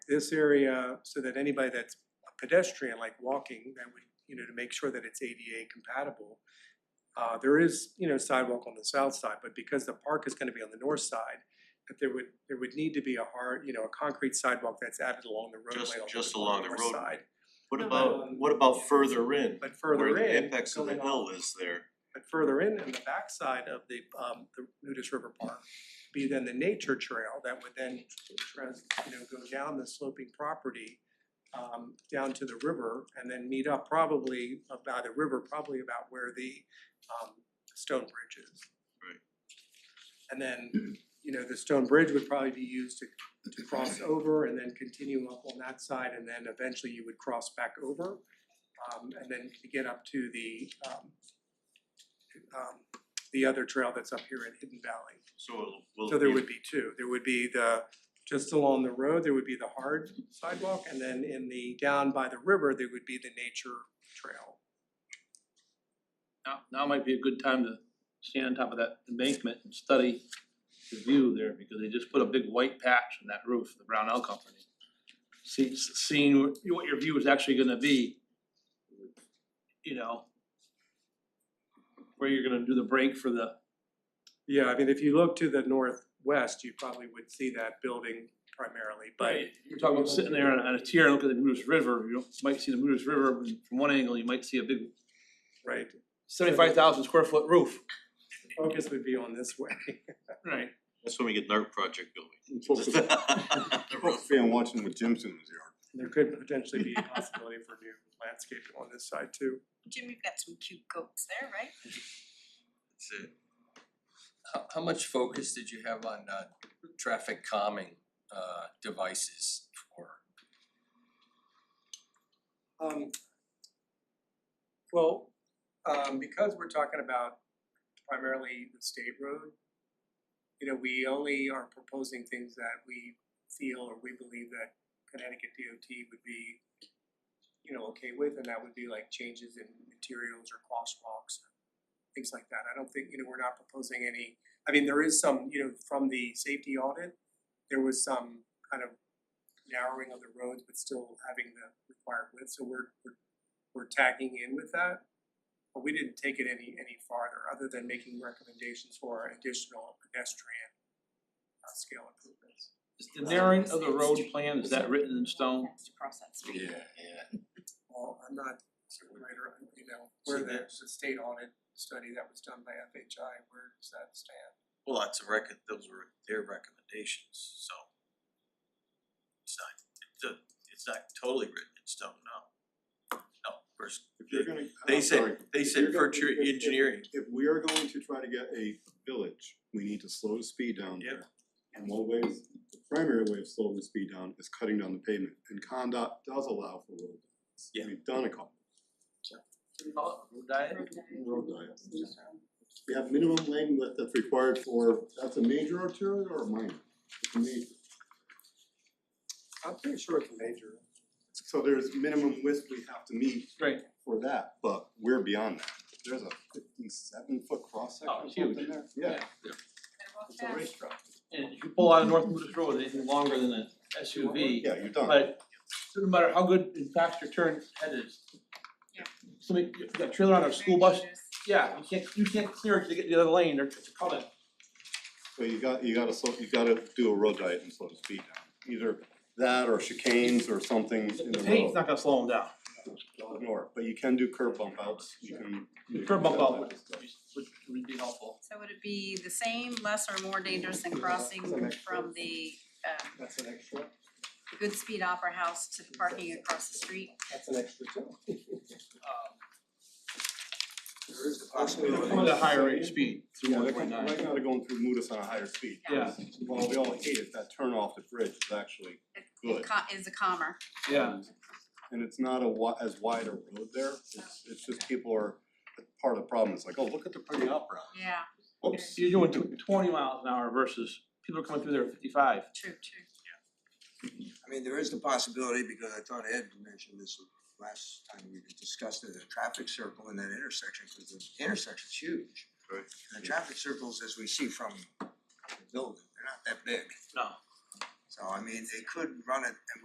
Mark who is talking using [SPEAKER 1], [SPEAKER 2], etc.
[SPEAKER 1] this area so that anybody that's a pedestrian, like walking, that would, you know, to make sure that it's ADA compatible. Uh, there is, you know, sidewalk on the south side, but because the park is gonna be on the north side, that there would, there would need to be a hard, you know, a concrete sidewalk that's added along the
[SPEAKER 2] Just-
[SPEAKER 1] roadway on the north side.
[SPEAKER 2] just along the roadway. What
[SPEAKER 1] No,
[SPEAKER 2] about,
[SPEAKER 1] um,
[SPEAKER 2] what about further in,
[SPEAKER 1] But further
[SPEAKER 2] where
[SPEAKER 1] in.
[SPEAKER 2] the apex of the
[SPEAKER 1] going
[SPEAKER 2] hill
[SPEAKER 1] off-
[SPEAKER 2] is there?
[SPEAKER 1] But further in, in the backside of the, um, the Nudist River Park, be then the nature trail that would then trans, you know, go down the sloping property, um, down to the river and then meet up probably about the river, probably about where the, um, stone bridge is.
[SPEAKER 2] Right.
[SPEAKER 1] And then, you know, the stone bridge would probably be used to, to cross over and then continue up on that side and then eventually you would cross back over. Um, and then to get up to the, um, um the other trail that's up here in Hidden Valley.
[SPEAKER 2] So it'll, will
[SPEAKER 1] So there
[SPEAKER 2] it
[SPEAKER 1] would
[SPEAKER 2] be,
[SPEAKER 1] be two, there would be the, just along the road, there would be the hard sidewalk, and then in the, down by the river, there would be the nature trail.
[SPEAKER 3] Now, now might be a good time to stand on top of that embankment and study the view there, because they just put a big white patch on that roof, the Brownell Company. See, seeing what what your view is actually gonna be, you know, where you're gonna do the break for the,
[SPEAKER 1] Yeah, I mean, if you look to the northwest, you probably would see that building primarily, but
[SPEAKER 3] you're talking about sitting there on a- on a tier, and look at the Moose River, you might see the Moose River, and from one angle, you might see a big
[SPEAKER 1] right,
[SPEAKER 3] seventy-five thousand square foot roof.
[SPEAKER 1] focus would be on this way.
[SPEAKER 3] Right.
[SPEAKER 2] that's when we get an art project going.
[SPEAKER 4] Focus
[SPEAKER 2] The road.
[SPEAKER 4] focus on watching what Jim's doing in his yard.
[SPEAKER 1] There could potentially be a possibility for new landscaping on this side too.
[SPEAKER 5] Jim, you've got some cute goats there, right?
[SPEAKER 2] That's it.
[SPEAKER 6] How how much focus did you have on uh traffic calming uh devices for?
[SPEAKER 1] Um, well, um, because we're talking about primarily the state road, you know, we only are proposing things that we feel or we believe that Connecticut DOT would be, you know, okay with, and that would be like changes in materials or crosswalks, things like that. I don't think, you know, we're not proposing any, I mean, there is some, you know, from the safety audit, there was some kind of narrowing of the roads, but still having the required width, so we're, we're, we're tagging in with that. But we didn't take it any, any farther, other than making recommendations for additional pedestrian uh, scale improvements.
[SPEAKER 3] Is the narrowing of the road plan, is that written in stone?
[SPEAKER 5] Has to cross that street.
[SPEAKER 6] yeah.
[SPEAKER 1] Well, I'm not certain writer, you know, where the, the state audit study that was done by FHI, where does that stand?
[SPEAKER 7] Well, that's a record, those were their recommendations, so. It's not, it's a, it's not totally written in stone, no. No, first,
[SPEAKER 4] If you're gonna,
[SPEAKER 7] they
[SPEAKER 4] I'm sorry,
[SPEAKER 7] said, they
[SPEAKER 4] if
[SPEAKER 7] said
[SPEAKER 4] you're
[SPEAKER 7] for
[SPEAKER 4] gonna-
[SPEAKER 7] tree
[SPEAKER 4] if- if-
[SPEAKER 7] engineering,
[SPEAKER 4] If we are going to try to get a village, we need to slow the speed down
[SPEAKER 7] Yep.
[SPEAKER 4] there. And one way is, the primary way of slowing the speed down is cutting down the pavement, and Condot does allow for road. diets.
[SPEAKER 7] Yeah.
[SPEAKER 4] We've done a couple,
[SPEAKER 3] Road diet?
[SPEAKER 4] road diets. We have minimum lane width that's required for, that's a major arterial or a minor? It's a major.
[SPEAKER 1] I'm pretty sure it's major.
[SPEAKER 4] So there's minimum width we have to meet
[SPEAKER 3] Right.
[SPEAKER 4] for that, but we're beyond that. There's a fifty-seven foot cross section
[SPEAKER 3] Oh,
[SPEAKER 4] or
[SPEAKER 3] it's
[SPEAKER 4] something
[SPEAKER 3] huge.
[SPEAKER 4] there, yeah,
[SPEAKER 5] Better walk
[SPEAKER 4] it's a
[SPEAKER 5] fast.
[SPEAKER 4] racetrack.
[SPEAKER 3] And if you pull out of North Moose Road, anything longer than an SUV,
[SPEAKER 4] Yeah, you're done,
[SPEAKER 3] but no matter how good and fast your turn head is.
[SPEAKER 5] Yeah.
[SPEAKER 3] Somebody, you got a trailer on a school bus,
[SPEAKER 5] Very dangerous.
[SPEAKER 3] yeah, you can't, you can't clear it to get to the other lane, they're it's coming.
[SPEAKER 4] so you got, you gotta slow, you gotta do a road diet and slow the speed down, either that or chicanes or something in
[SPEAKER 3] The
[SPEAKER 4] the
[SPEAKER 3] paint's
[SPEAKER 4] road.
[SPEAKER 3] not gonna slow them down,
[SPEAKER 4] They'll ignore it, but you can do curb bump outs, you can. you
[SPEAKER 3] curb
[SPEAKER 4] can
[SPEAKER 3] bump
[SPEAKER 4] do
[SPEAKER 3] out
[SPEAKER 4] that
[SPEAKER 3] would,
[SPEAKER 4] stuff.
[SPEAKER 3] would, would be helpful.
[SPEAKER 5] So would it be the same, less or more dangerous than crossing from the um
[SPEAKER 1] That's an extra,
[SPEAKER 5] Good Speed Opera House to the parking across the street?
[SPEAKER 1] that's an extra too.
[SPEAKER 3] Um,
[SPEAKER 1] There is the
[SPEAKER 3] they're coming at a Um, higher rate of speed, through
[SPEAKER 4] Yeah,
[SPEAKER 3] one
[SPEAKER 4] they're
[SPEAKER 3] point
[SPEAKER 4] going,
[SPEAKER 3] nine.
[SPEAKER 4] right now they're going through Mudas on a higher speed.
[SPEAKER 3] Yeah.
[SPEAKER 4] Well, we all hate it, that turn off the bridge is actually,
[SPEAKER 5] It
[SPEAKER 4] Good.
[SPEAKER 5] it co- is a calmer.
[SPEAKER 3] Yeah,
[SPEAKER 4] and it's not a wi- as wide a road there, it's it's just people are, part of the problem is like, oh, look at the pretty opera.
[SPEAKER 5] Yeah,
[SPEAKER 4] Oops.
[SPEAKER 3] you're doing tw- twenty miles an hour versus people are coming through there at fifty-five.
[SPEAKER 5] true, true.
[SPEAKER 8] I mean, there is the possibility, because I thought Ed mentioned this last time we discussed it, the traffic circle in that intersection, cause the intersection's huge.
[SPEAKER 4] Right.
[SPEAKER 8] And the traffic circles, as we see from the building, they're not that big.
[SPEAKER 3] No.
[SPEAKER 8] So I mean, they could run it, and